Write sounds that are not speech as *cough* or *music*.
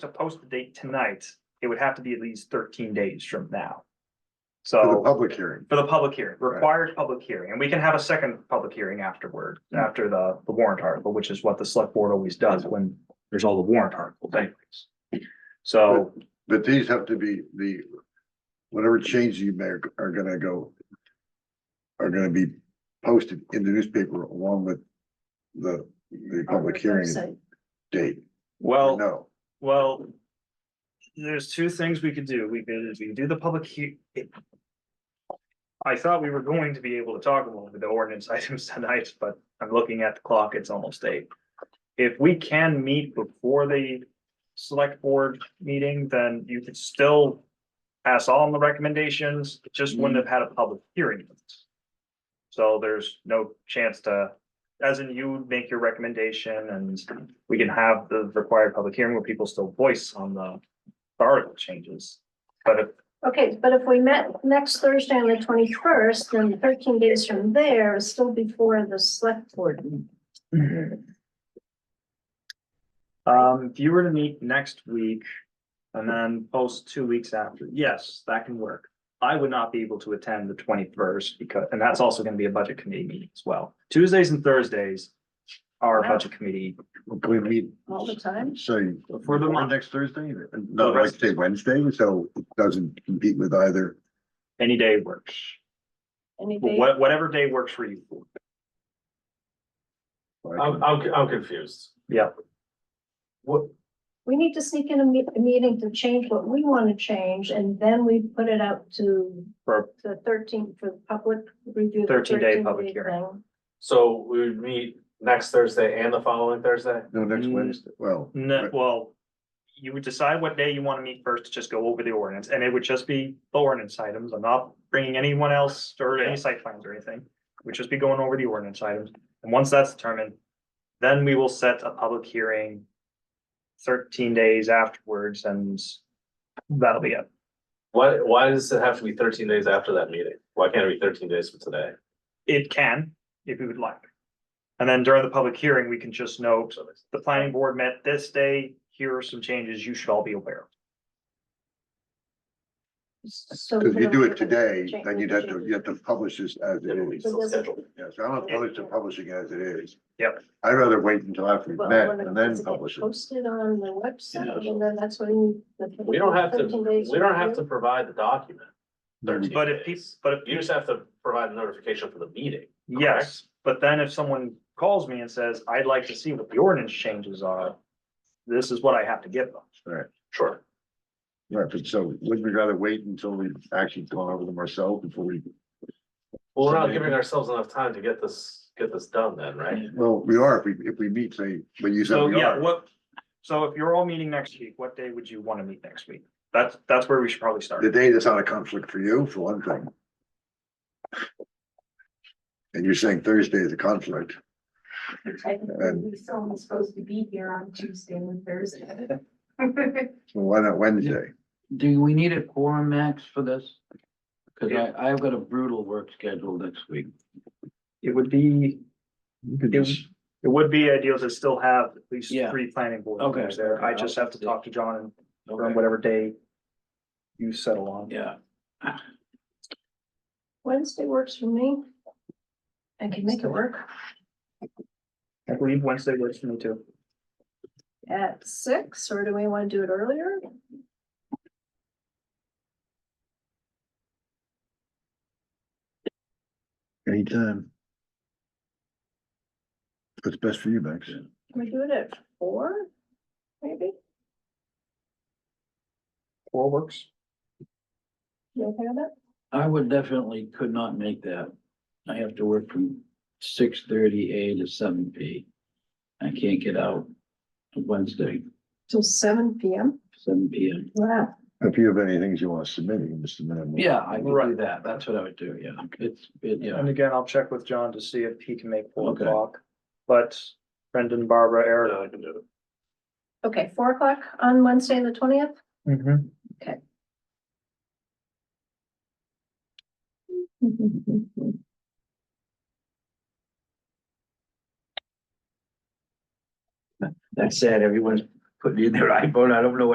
to post the date tonight, it would have to be at least thirteen days from now. for the So public hearing. for the public hearing, Right. required public hearing, and we can have a second public hearing afterward, Mm. after the the warrant article, which is what the select board always does when there's all the warrant articles anyways. So But these have to be the, whatever changes you make are gonna go. Are gonna be posted in the newspaper along with the, the public hearing Website. date. well. No, Well, there's two things we could do. We could, we could do the public he- I thought we were going to be able to talk about the ordinance *laughs* items tonight, but I'm looking at the clock, it's almost eight. If we can meet before the select board meeting, then you could still pass on the recommendations, it just wouldn't have had a public hearing. So there's no chance to, as in you make your recommendation and we can have the required public hearing where people still voice on the the article changes. But if, Okay, but if we met next Thursday on the twenty-first, then thirteen days from there is still before the select board. meeting. um, if you were to meet next week and then post two weeks after, yes, that can work. I would not be able to attend the twenty-first because, and that's also gonna be a budget committee meeting as well. Tuesdays and Thursdays are Wow. budget committee. we meet, All the time? say, For the month. next Thursday, no, like say Wednesday, so it doesn't compete with either. Any day works. Any day? Wha- whatever day works for you. Uh, I'm, I'm, I'm confused. Yeah. What, We need to sneak in a me- a meeting to change what we want to change, and then we put it out to For- the thirteen, for public review. the 13 day 13 public hearing. thing. so we would meet next Thursday and the following Thursday? No, next Wednesday, well. No, well, you would decide what day you want to meet first, to just go over the ordinance, and it would just be the ordinance items. I'm not bringing anyone else or any site plans or anything. We'd just be going over the ordinance items, and once that's determined, then we will set a public hearing thirteen days afterwards, and that'll be it. Why, why does it have to be thirteen days after that meeting? Why can't it be thirteen days from today? It can, if you would like. And then during the public hearing, we can just note, the planning board met this day, here are some changes you should all be aware of. So Cause if you do we're it gonna today, change- then you'd have to, you have to publish this as it Then we is. still schedule. Yeah, so I'm opposed to publishing as it is. Yep. I'd rather wait until after we've Well, met when it- and does then it get publish it. Posted on the website, Yeah. and then that's when. the- We don't have to, 13 days we don't have to review. provide the document. 13 But if, peop- days. but if. You just have to provide a notification for the meeting. Yes, but then if someone calls me and says, I'd like to see what the ordinance changes are, this is what I have to give them. Sure. Right, but so wouldn't we rather wait until we've actually gone over them ourselves before we, Well, we're not Somebody- giving ourselves enough time to get this, get this done then, right? well, we are, if we, if we meet, say, but you said So, we yeah, are. what, so if you're all meeting next week, what day would you want to meet next week? That's, that's where we should probably start. The day that's not a conflict for you, for one thing. And you're saying Thursday is a conflict. Technically, someone's supposed to be here on Tuesday and Thursday. Well, why not Wednesday? Do we need a quorum max for this? Cause I, I've got a brutal work schedule next week. It would be, it it would be ideal to still have at least Yeah. three planning board Okay. members there. I just have to talk to John and confirm whatever day you settle on. Yeah, *laughs* Wednesday works for me. I can make it work I believe Wednesday works for me too. at six, or do we want to do it earlier? Anytime. What's best for you, Max? Can we do it at four, maybe? Four works. You okay with that? I would definitely could not make that. I have to work from six thirty A to seven P. I can't get out Wednesday, Till seven P M? seven P M. Wow. If you have any things you want to submit, you can submit them. Yeah, I could do Right. that. That's what I would do, yeah. It's, it, yeah. And again, I'll check with John to see if he can make four Okay. o'clock. But Brendan, Barbara, Eric, Yeah, I can do it. Okay, four o'clock on Wednesday, *laughs* the twentieth? Mm-hmm. That's sad. Everyone's putting in their *laughs* iPhone. I don't know